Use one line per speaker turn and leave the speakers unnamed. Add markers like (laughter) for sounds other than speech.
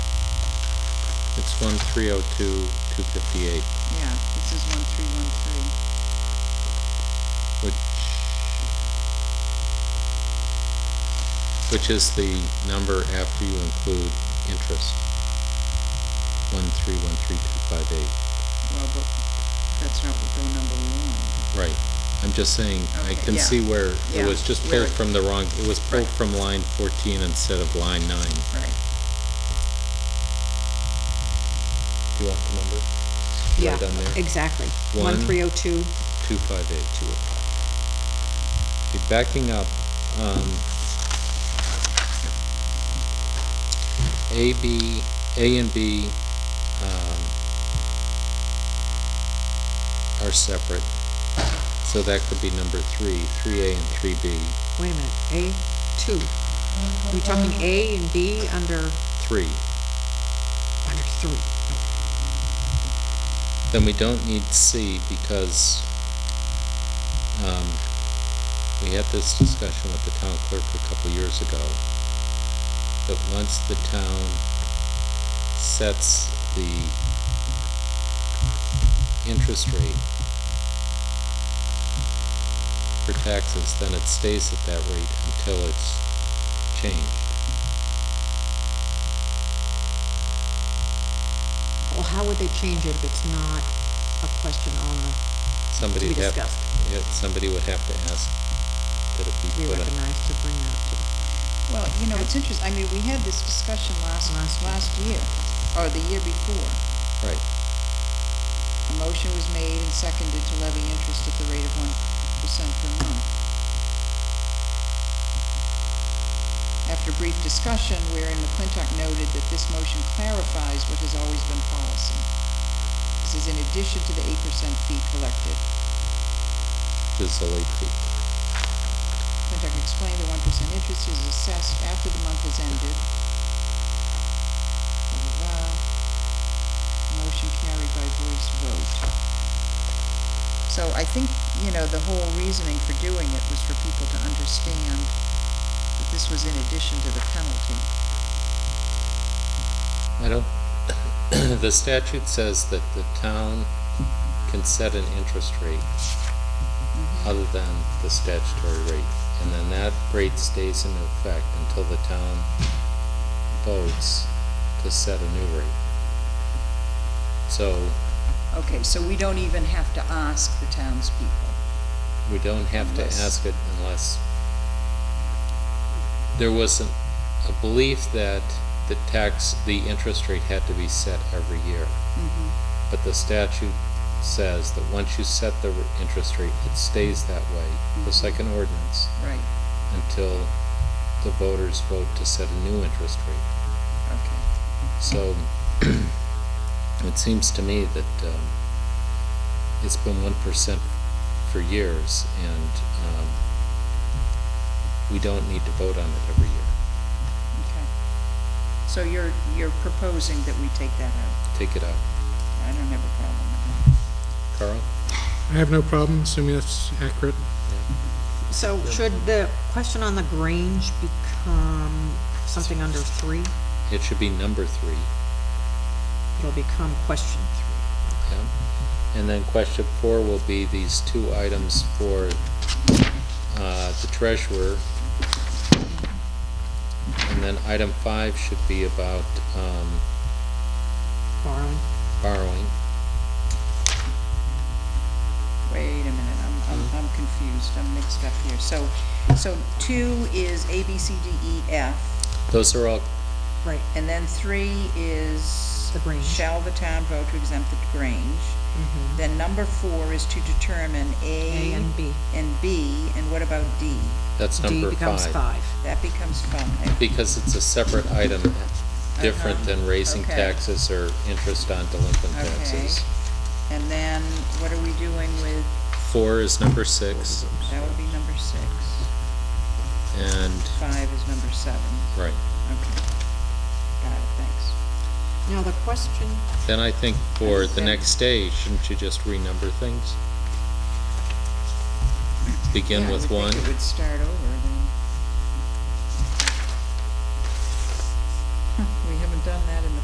one three oh two, two fifty-eight,
Yeah, this is one three one three.
which, which is the number after you include interest. One three one three two five eight,
Well, but that's not what the number we want.
right. I'm just saying, I
Okay,
can
yeah.
see where
Yeah,
it was just
where
pulled
it-
from the wrong, it was pulled
Right.
from line fourteen instead of line nine.
Right.
Do you want the number?
Yeah,
Right on there.
exactly.
One.
One three oh two.
258. oh Okay, backing up, um, A, B, A and B, um, are separate, so that could be number three, three A and three B,
Wait a minute, A two. Are we talking A and B under,
three.
under three?
Then we don't need C because, um, we had this discussion with the town clerk a couple years ago. That once the town sets the interest rate for taxes, then it stays at that rate until it's changed.
Well, how would they change it if it's not a question on the,
Somebody
be
would have,
discussed.
yeah, somebody would have to ask that it be
we
put on.
recognize to bring that to the,
Well, you know, it's interesting, I mean, we had this discussion last,
Last year.
last year, or the year before.
Right.
A motion was made and seconded to levy interest at the rate of one percent per month. After brief discussion, wherein McClintock noted that this motion clarifies what has always been policy. This is in addition to the eight percent fee collected.
is the late fee.
McClintock explained that one percent interest is assessed after the month has ended. Blah, blah, blah. Motion carried by voice vote. So I think, you know, the whole reasoning for doing it was for people to understand that this was in addition to the penalty.
I don't, (coughs) the statute says that the town can set an interest rate other than the statutory rate, and then that rate stays in effect until the town votes to set a new rate. So
Okay, so we don't even have to ask the townspeople.
we don't have to
Unless-
ask it unless there was a, a belief that the tax, the interest rate had to be set every year. But the statute says that once you set the r- interest rate, it stays that way, just like an ordinance,
Right,
until the voters vote to set a new interest rate.
okay.
So (clears throat) it seems to me that, um, it's been one percent for years and, um, we don't need to vote on it every year.
Okay. So you're, you're proposing that we take that out?
Take it out.
I don't have a problem with that.
Carl?
I have no problem, assuming that's accurate.
So should the question on the Grange become something under three?
It should be number three,
It'll become question three.
okay? And then question four will be these two items for, uh, the treasurer. And then item five should be about, um,
Borrowing,
borrowing.
Wait a minute, I'm, I'm, I'm confused, I'm mixed up here. So, so two is A, B, C, D, E, F,
Those are all
right,
and then three is.
The Grange. Mm-hmm.
Shall the town vote to exempt the Grange? Then number four is to determine A.
A and B.
And B, and what about D?
That's
D
number
becomes five.
That becomes five.
Because it's a separate item, different than raising
okay.
taxes or interest on delinquent
Okay.
taxes.
And then what are we doing with,
Four is number six,
that would be number six.
and,
Five is number seven.
right.
Okay. Got it, thanks.
Now, the question,
Then I think for the
Understand.
next day, shouldn't you just renumber things? Begin
Yeah, I
with
would
one,
think it would start over then. Huh, We haven't done that in the